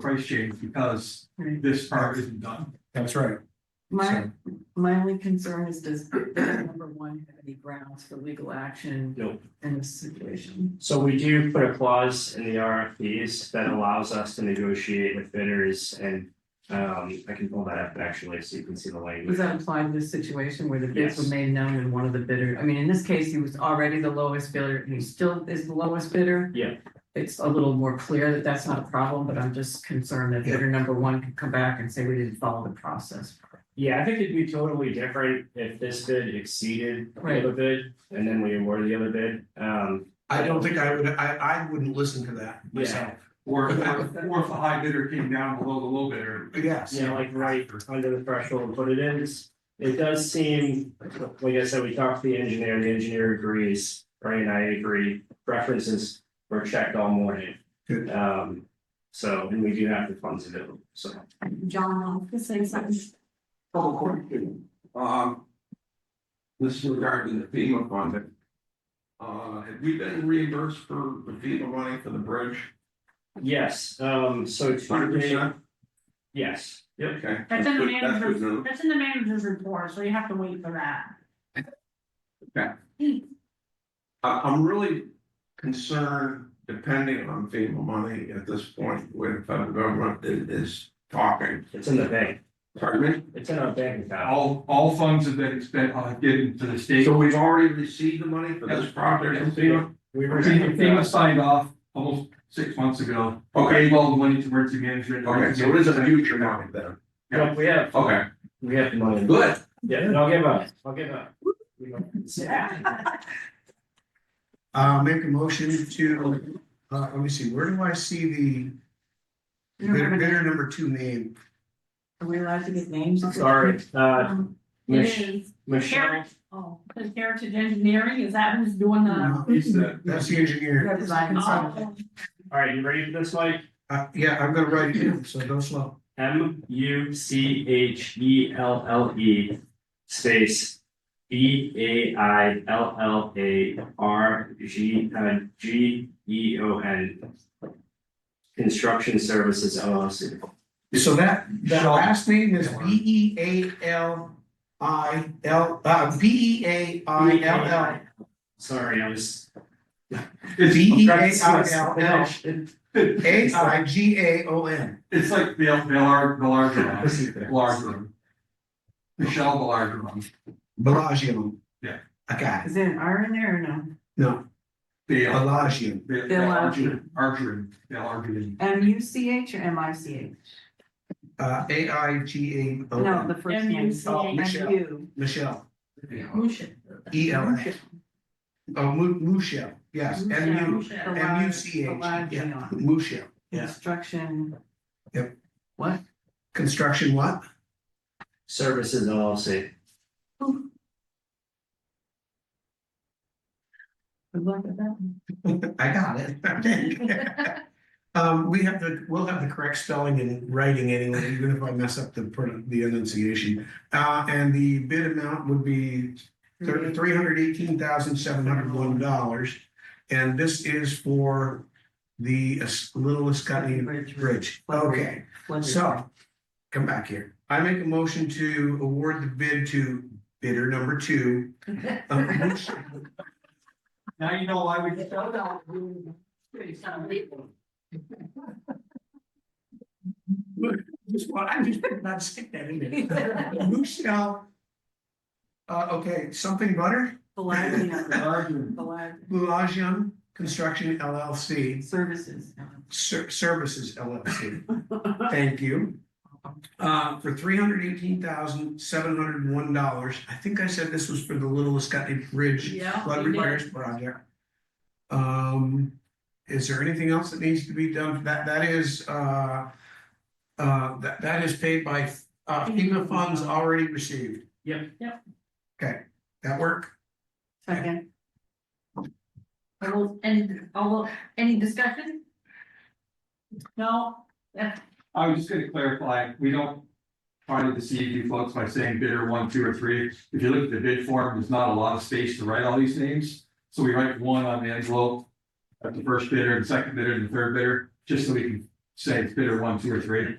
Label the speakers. Speaker 1: price change because this part isn't done.
Speaker 2: That's right.
Speaker 3: My, my only concern is does number one have any grounds for legal action
Speaker 1: No.
Speaker 3: in this situation?
Speaker 4: So we do put a clause in the RFPs that allows us to negotiate with bidders and um I can pull that up actually, so you can see the
Speaker 3: Does
Speaker 4: language.
Speaker 3: that apply to this situation where the bids were
Speaker 4: Yes.
Speaker 3: made known and one of the bidder, I mean, in this case, he was already the lowest bidder and he still is the lowest bidder?
Speaker 4: Yeah.
Speaker 3: It's a little more clear that that's not a problem, but I'm just concerned that bidder number one could come back and say we didn't follow the process.
Speaker 4: Yeah, I think it'd be totally different if this bid exceeded the
Speaker 3: Right.
Speaker 4: other bid and then we awarded the other bid, um.
Speaker 2: I don't think I would, I, I wouldn't listen to that myself.
Speaker 1: Or if, or if the high bidder came down below the low bidder.
Speaker 2: Yes.
Speaker 4: Yeah, like right under the threshold, but it is, it does seem, like I said, we talked to the engineer, the engineer agrees, right, and I agree, references were checked all morning.
Speaker 2: Good.
Speaker 4: Um, so, and we do have the funds available, so.
Speaker 5: John, I'll just say something.
Speaker 1: Public question, um. This is regarding the FEMA funding. Uh, have we been reimbursed for the FEMA money for the bridge?
Speaker 4: Yes, um, so. to-
Speaker 1: Hundred percent?
Speaker 4: Yes, yep,
Speaker 1: Okay.
Speaker 5: That's in the
Speaker 1: good- that's good
Speaker 5: manager's,
Speaker 1: news.
Speaker 5: that's in the manager's report, so you have to wait for that.
Speaker 1: I, I'm really concerned, depending on FEMA money at this point, where the federal government is, is talking.
Speaker 4: it's in the bank,
Speaker 1: Pardon me?
Speaker 4: it's in our bank account.
Speaker 6: All, all funds have been spent, uh, given to the state.
Speaker 1: So we've already received the money for this project from FEMA?
Speaker 4: We received
Speaker 6: FEMA
Speaker 4: that,
Speaker 6: signed off almost six months ago. Gave all the money to emergency management.
Speaker 1: Okay, so it is a future money then.
Speaker 4: No, we have,
Speaker 1: Okay,
Speaker 4: we have the money,
Speaker 1: good.
Speaker 4: yeah, and I'll give up, I'll give up. We don't-
Speaker 2: Uh, make a motion to, uh, let me see, where do I see the bidder, bidder number two name?
Speaker 3: Are we allowed to get names?
Speaker 4: Sorry, uh,
Speaker 5: Um, It
Speaker 4: Mich-
Speaker 5: is,
Speaker 4: Michelle,
Speaker 5: oh, it's Heritage Engineering, is that who's doing the?
Speaker 1: He's the-
Speaker 2: Uh, That's the engineer.
Speaker 3: Yeah, design consultant.
Speaker 5: Oh,
Speaker 4: all right, you ready for this, Mike?
Speaker 2: Uh, yeah, I'm gonna write it down, so go slow.
Speaker 4: M U C H E L L E space B A I L L A R G uh G E O N. Construction Services LLC.
Speaker 2: So that, that
Speaker 4: Shall-
Speaker 2: last name is B E A L I L, uh, B E A I L L.
Speaker 4: Sorry, I was.
Speaker 2: B E A
Speaker 4: I'm
Speaker 2: I L L
Speaker 4: trying to-
Speaker 2: E A I G A O N.
Speaker 6: It's like the, the large, the larger one, larger one. Michelle, the larger one.
Speaker 2: Bellagio.
Speaker 6: Yeah.
Speaker 2: I got it.
Speaker 3: Is there an R in there or no?
Speaker 2: No,
Speaker 6: The, uh,
Speaker 2: Bellagio.
Speaker 6: the, the
Speaker 3: Bill
Speaker 6: larger, larger, the larger.
Speaker 3: M U C H or M I C H?
Speaker 2: Uh, A I G A uh, O
Speaker 3: No,
Speaker 2: N.
Speaker 3: the first name.
Speaker 2: Oh, Michelle.
Speaker 3: You.
Speaker 2: Michelle.
Speaker 5: Musha.
Speaker 2: E L N. Oh, Mu- Mushel, yes, M U,
Speaker 5: Musha.
Speaker 2: M U C H, yeah, Mushel. Yeah.
Speaker 3: Construction.
Speaker 2: Yep.
Speaker 3: What?
Speaker 2: Construction what?
Speaker 4: Services LLC.
Speaker 3: Good luck with that. one.
Speaker 2: I got it. Um, we have the, we'll have the correct spelling in writing anyway, even if I mess up the, pro- the enunciation. Uh, and the bid amount would be
Speaker 3: Mm-hmm.
Speaker 2: three hundred eighteen thousand seven hundred one dollars. And this is for the Es- Little Escutney Bridge. Okay.
Speaker 3: Flood rate.
Speaker 2: So, come back here. I make a motion to award the bid to bidder number two. um, Mich-
Speaker 6: Now you know why we.
Speaker 2: Just want, I just did not stick that in there. Michelle. Uh, okay, something butter,
Speaker 3: Bellagio.
Speaker 6: Larger.
Speaker 3: Bellagio
Speaker 2: Bellagio Construction LLC,
Speaker 3: Services.
Speaker 2: Ser- Services LLC. Thank you. Uh, for three hundred eighteen thousand, seven hundred and one dollars. I think I said this was for the Little Escutney Bridge.
Speaker 5: Yeah.
Speaker 2: flood
Speaker 5: you did.
Speaker 2: repairs project. Um, is there anything else that needs to be done? That, that is, uh, uh, that, that is paid by, uh, FEMA funds already received.
Speaker 4: Yep.
Speaker 5: Yep.
Speaker 2: Okay, that work?
Speaker 3: Second.
Speaker 5: I will, and, although, any discussion? No, that's
Speaker 6: I was just gonna clarify, we don't try to deceive you folks by saying bidder one, two, or three. If you look at the bid form, there's not a lot of space to write all these names. So we write one on the envelope at the first bidder, the second bidder, and the third bidder, just so we can say it's bidder one, two, or three.